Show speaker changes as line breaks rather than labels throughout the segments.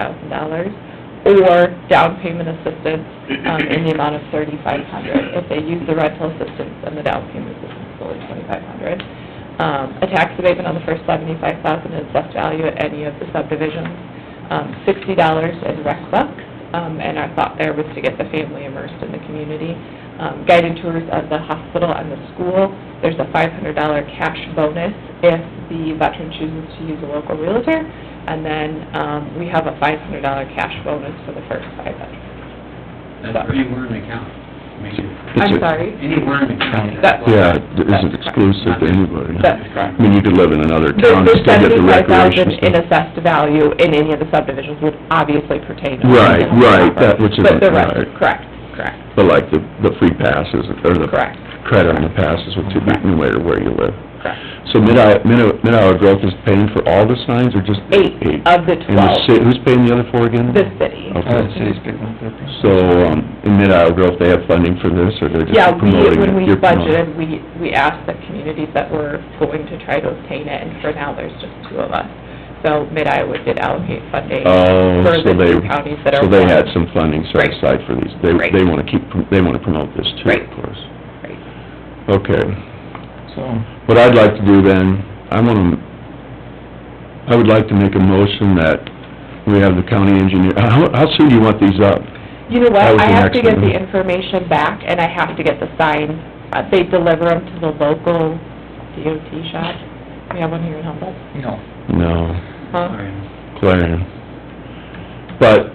thousand dollars, or down payment assistance, um, in the amount of thirty-five hundred. If they use the rental assistance, then the down payment assistance is only twenty-five hundred. Um, a tax abatement on the first seventy-five thousand is less value at any of the subdivisions. Um, sixty dollars in rec bucks, um, and our thought there was to get the family immersed in the community. Um, guided tours of the hospital and the school, there's a five hundred dollar cash bonus if the veteran chooses to use a local realtor. And then, um, we have a five hundred dollar cash bonus for the first five veterans.
That's for anywhere in the county. I mean,
It's
I'm
a-
sorry,
anywhere in the county.
That-
Yeah, it isn't exclusive to anybody.
that's
I
correct.
mean, you could live in another
The
town, and
the
still get the
seventy-five thousand
recreation
in
stuff.
assessed value in any of the subdivisions would obviously pertain to.
Right,
the
right,
property.
that which is,
But the rest,
right.
correct, correct,
But like the, the free passes, or the
correct,
credit on the passes would be no matter where you live.
correct.
So Mid-Iowa, Mid- Mid-Iowa Growth is paying for all the signs, or just?
Eight of the
And the
twelve,
ci, who's paying the other four
Oh,
again?
the city.
Okay.
picking up their piece.
So, um, in Mid-Iowa Grove, they have funding for this, or they're
Yeah,
just
we,
promoting it?
when we
You're promoting
budgeted,
it.
we, we asked the communities that were going to try to obtain it, and for now, there's just two of us. So Mid-Iowa did allocate funding
Oh,
for the
so they,
two counties that are.
so they had
one.
some funding set
Right.
aside for these. They,
Right.
they wanna keep, prom- they wanna promote this too,
Right.
of course.
Right.
Okay.
So,
What I'd like to do then, I wanna, I would like to make a motion that we have the county engineer, how, how soon do you want these up?
You know
That
what,
was
I
the
have to
next
get the
one.
information back, and I have to get the sign, uh, they deliver them to the local DOT shop. We have one here in Humboldt,
no.
No,
huh?
Clarion. But,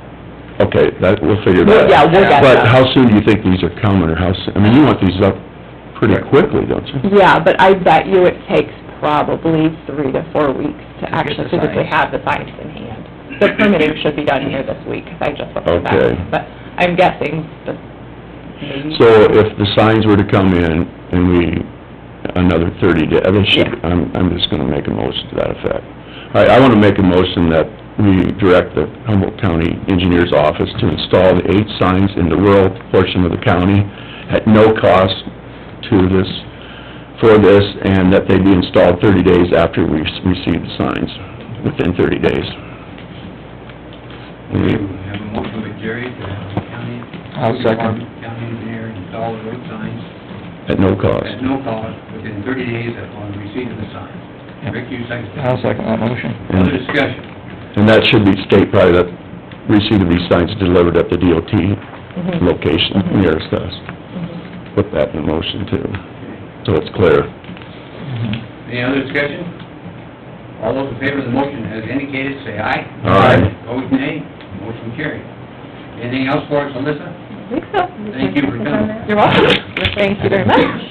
okay, that, we'll figure
Well,
that out.
yeah, we'll get
But
them.
how soon do you think these are coming, or how soon, I mean, you want these up pretty quickly, don't you?
Yeah, but I bet you it takes probably three to four weeks to
To get
actually
the
physically
signs.
have the signs in hand. The permitting should be done here this week, 'cause I just looked at
Okay.
that, but I'm guessing the, maybe.
So if the signs were to come in and we, another thirty day, they should, I'm, I'm just gonna make a motion to that effect. All right, I wanna make a motion that we direct the Humboldt County Engineer's Office to install the eight signs in the rural portion of the county at no cost to this, for this, and that they be installed thirty days after we s- receive the signs, within thirty days.
We
We-
have a motion by Jerry to have the county.
I'll second.
County engineer install the road signs
At no cost.
at no cost within thirty days upon receipt of the sign. Rick, you second
I'll
that.
second that motion.
And-
Other discussion?
And that should be state probably that receipt of these signs delivered at the DOT
Mhm,
location nearest us.
mhm.
Put that in motion too,
Okay.
so it's clear.
Any other discussion? All those in favor of the motion as indicated, say aye.
Aye.
Opposed, nay. Motion carried. Anything else for us, Alyssa?
I think so.
Thank you for coming.
You're welcome. Thank you very much.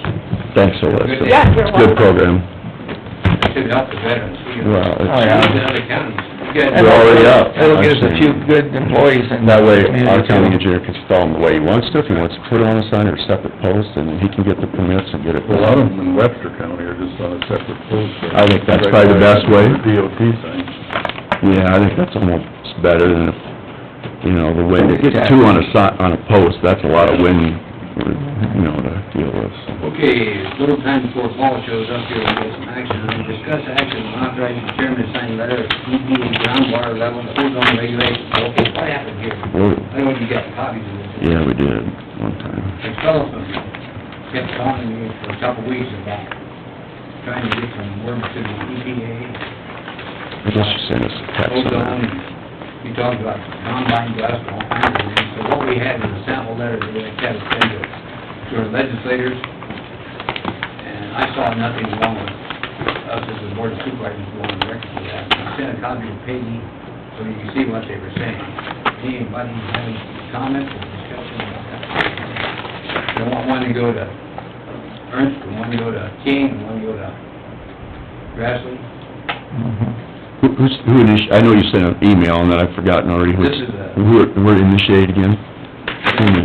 Thanks, Alyssa.
Yeah, you're
It's a
welcome.
Good program.
That should help the veterans. We have-
Well,
Oh,
it's-
yeah.
Some of the other counties. You guys-
We're already up.
It'll get us a few good employees in.
And that way,
community,
our county
too.
engineer can install them the way he wants to, if he wants to put it on a sign or a separate post, and he can get the permits and get it.
A lot of them in Webster County are just on a separate post.
I think that's probably the best way.
DOT sign.
Yeah, I think that's almost better than, if, you know, the wind, if you get two on a si, on a post, that's a lot of wind, you know, to deal with. so.
Okay, little time before Paul shows up here, we'll get some action. on it. Discuss action on authorizing chairman to sign letter of ED and groundwater level and ozone regulations. Okay, what happened here?
Whoa.
I know you got copies of this.
Yeah, we did, one time.
The telephone kept calling me for a couple weeks about trying to get some work to the E EPA,
I guess you sent us a text on
ozone.
that.
You talked about combine dust and all kinds of things. So what we had was a sample letter that we had to send to, to our legislators. And I saw nothing wrong with us as a board of supervisors going directly to that. I sent a copy to Peggy so you can see what they were saying. Anybody have any comments or discussion about that? They want one to go to Ernst, and one to go to King, and one to go to Grassley.
Mhm.
Who, who's- who initi, I know you sent an email and then I've forgotten already. who-
This is a-
Who, who initiated again? Hmm.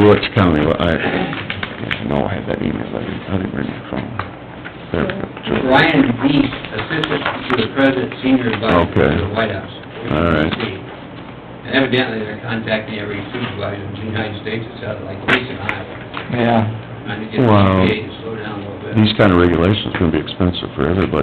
Which county, Well, I, no, I had that email, I didn't, I didn't bring my phone. There we go.
Brian Beast, Assistant to the President, Senior Advisor
Okay.
to the White House.
All right.
And evidently, they're contacting every supervisor in the United States, it sounded like at least in Iowa.
Yeah.
Trying to get the
Wow.
EPA to slow down a little bit.
These kind of regulations are gonna be expensive for everybody.